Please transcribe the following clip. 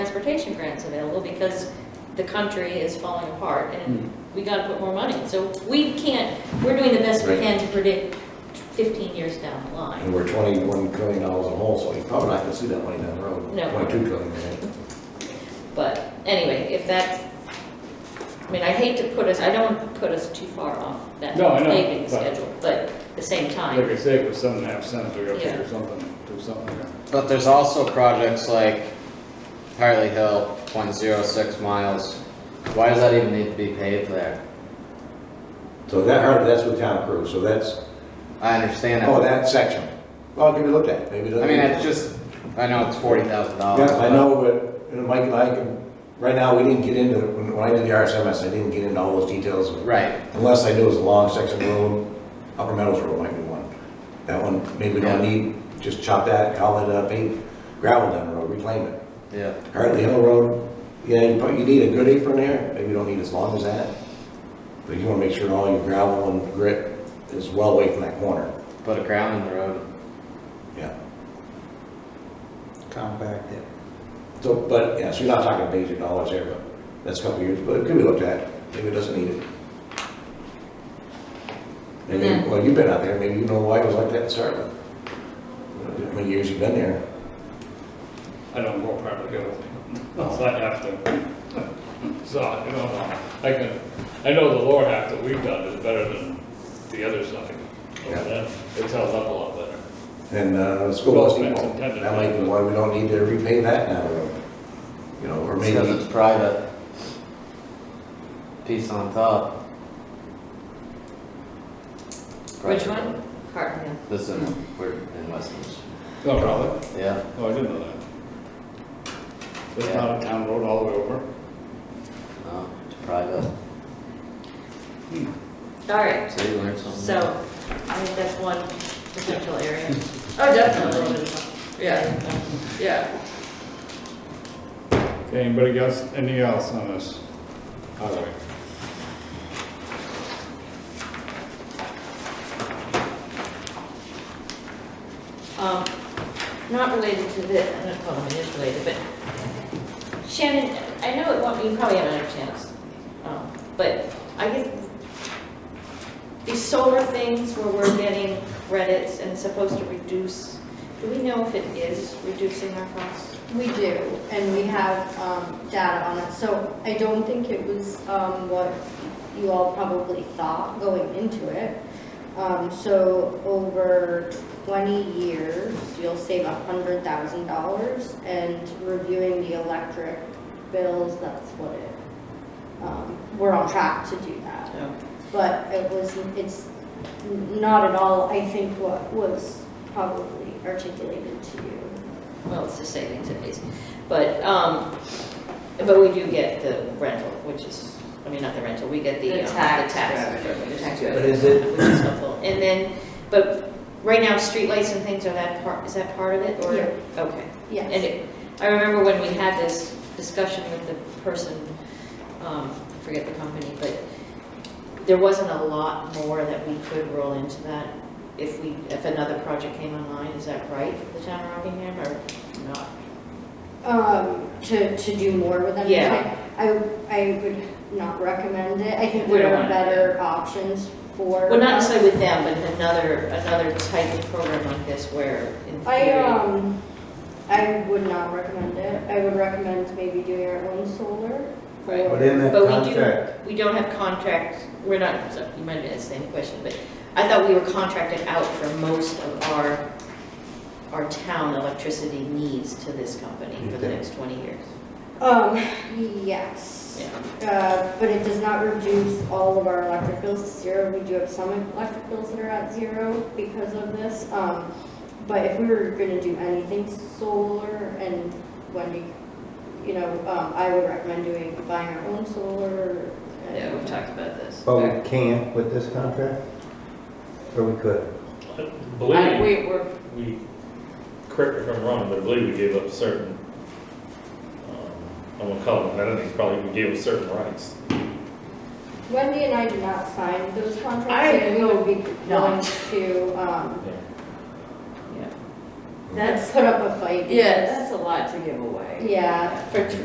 transportation grants available because the country is falling apart Hmm. and we gotta put more money. So we can't, we're doing the best we Right. can to predict fifteen years down the line. And we're twenty-one trillion dollars a hole, so you're probably not gonna see that money down the road. No. Twenty-two trillion, right? But anyway, if that, I mean, I hate to put us, I don't want to put us too far off that No, I know, paving but- schedule, but at the same Like time, I say, with seven and a half cents, we gotta Yeah. figure something, do something there. But there's also projects like Hartley Hill, point zero six miles. Why does that even need to be paved there? So that, hard- that's with town crew, so that's, I understand oh, that. that section. Well, give it a look at, it. maybe. I mean, it's just, I know it's forty thousand dollars. Yeah, I know, but, you know, Mike and I can, right now, we didn't get into, when when I did the RSMS, I didn't get into all those details. Right, Unless I knew it was a long section of road, Upper Meadows Road might be one. That one, maybe we don't Yeah. need, just chop that, call it, uh, pave, gravel down the road, reclaim it. yeah. Hartley Hill Road, yeah, you probably, you need a good apron there, maybe you don't need as long as that. But you wanna make sure all your gravel and grit is well away from that corner, Put a ground in the road. yeah. compact it. So, but, yeah, so you're not talking major dollars there, but that's a couple of years, but it could be looked at, maybe it doesn't need it. And then, well, you've been out there, maybe you know why it was like that in Sartland. How many years you've been there? I don't go probably go, unless I have to. So, I don't know, I can, I know the lower half that we've done is better than the other side. Yeah. Over there. It's held up a lot better. And, uh, the school Well, bus that's depot, intended. that might be why we don't need to repay that now, you know, or maybe. Because it's private. Piece on top. which one? Hard, yeah. This is, we're in Westminster. No problem. Yeah, Oh, I didn't know that. It's Yeah. not a town road all the way over. no, it's private. All right, So you learned something. So, I think that's one potential area. Oh, definitely. Yeah, yeah. Okay, anybody else, any else on this highway? Um, not related to this, I don't know if it is related, but Shannon, I know it won't, you probably haven't had a chance, um, but I guess these solar things where we're getting credits and it's supposed to reduce, do we know if it is reducing our costs? We do, and we have um, data on it. So I don't think it was um, what you all probably thought going into it. Um, So over 20 years, you'll save $100,000, and reviewing the electric bills, that's what it, um, we're on track to do that. No. But it was, it's not at all, I think, what was probably articulated to you. Well, it's the savings at least, but, um, but we do get the rental, which is, I mean, not the rental, we get the. The um, tax The tax. revenue. the tax But revenue, is it- Which is helpful, and then, but right now, streetlights and things are that part, is that part of it, or? Yeah. Okay. Yes. And it- I remember when we had this discussion with the person, um, I forget the company, but there wasn't a lot more that we could roll into that if we, if another project came online, is that right, the town of Rockingham, or not? Um, to, to do more with them. Yeah. I, I would not recommend it. I think We there don't are want it. better options for. Well, not necessarily with them, but another, another type of program like this where in I, theory. um, I would not recommend it. I would recommend maybe doing our own solar. Right. But in that But we contract, do, we don't have contracts, we're not, so you might have asked the same question, but I thought we were contracted out for most of our, our town electricity needs to this company for the Okay. next 20 years. Um, yes. Uh, but it does not reduce all of our electric bills to zero. We do have some electric bills that are at zero because of this. Um, but if we were gonna do anything solar and Wendy, you know, um, I would recommend doing, buying our own solar. and- Yeah, we've talked about this. but we can't with this contract? Or we could? I I- believe we- We're, we, correct me if I'm wrong, but I believe we gave up certain, um, I'm gonna call them amenities, probably we gave up certain rights. Wendy and I did not sign those I- contracts, and we would be No. willing to, um, yeah. That's, put up a fight. yeah, that's a lot to give away. Yeah. For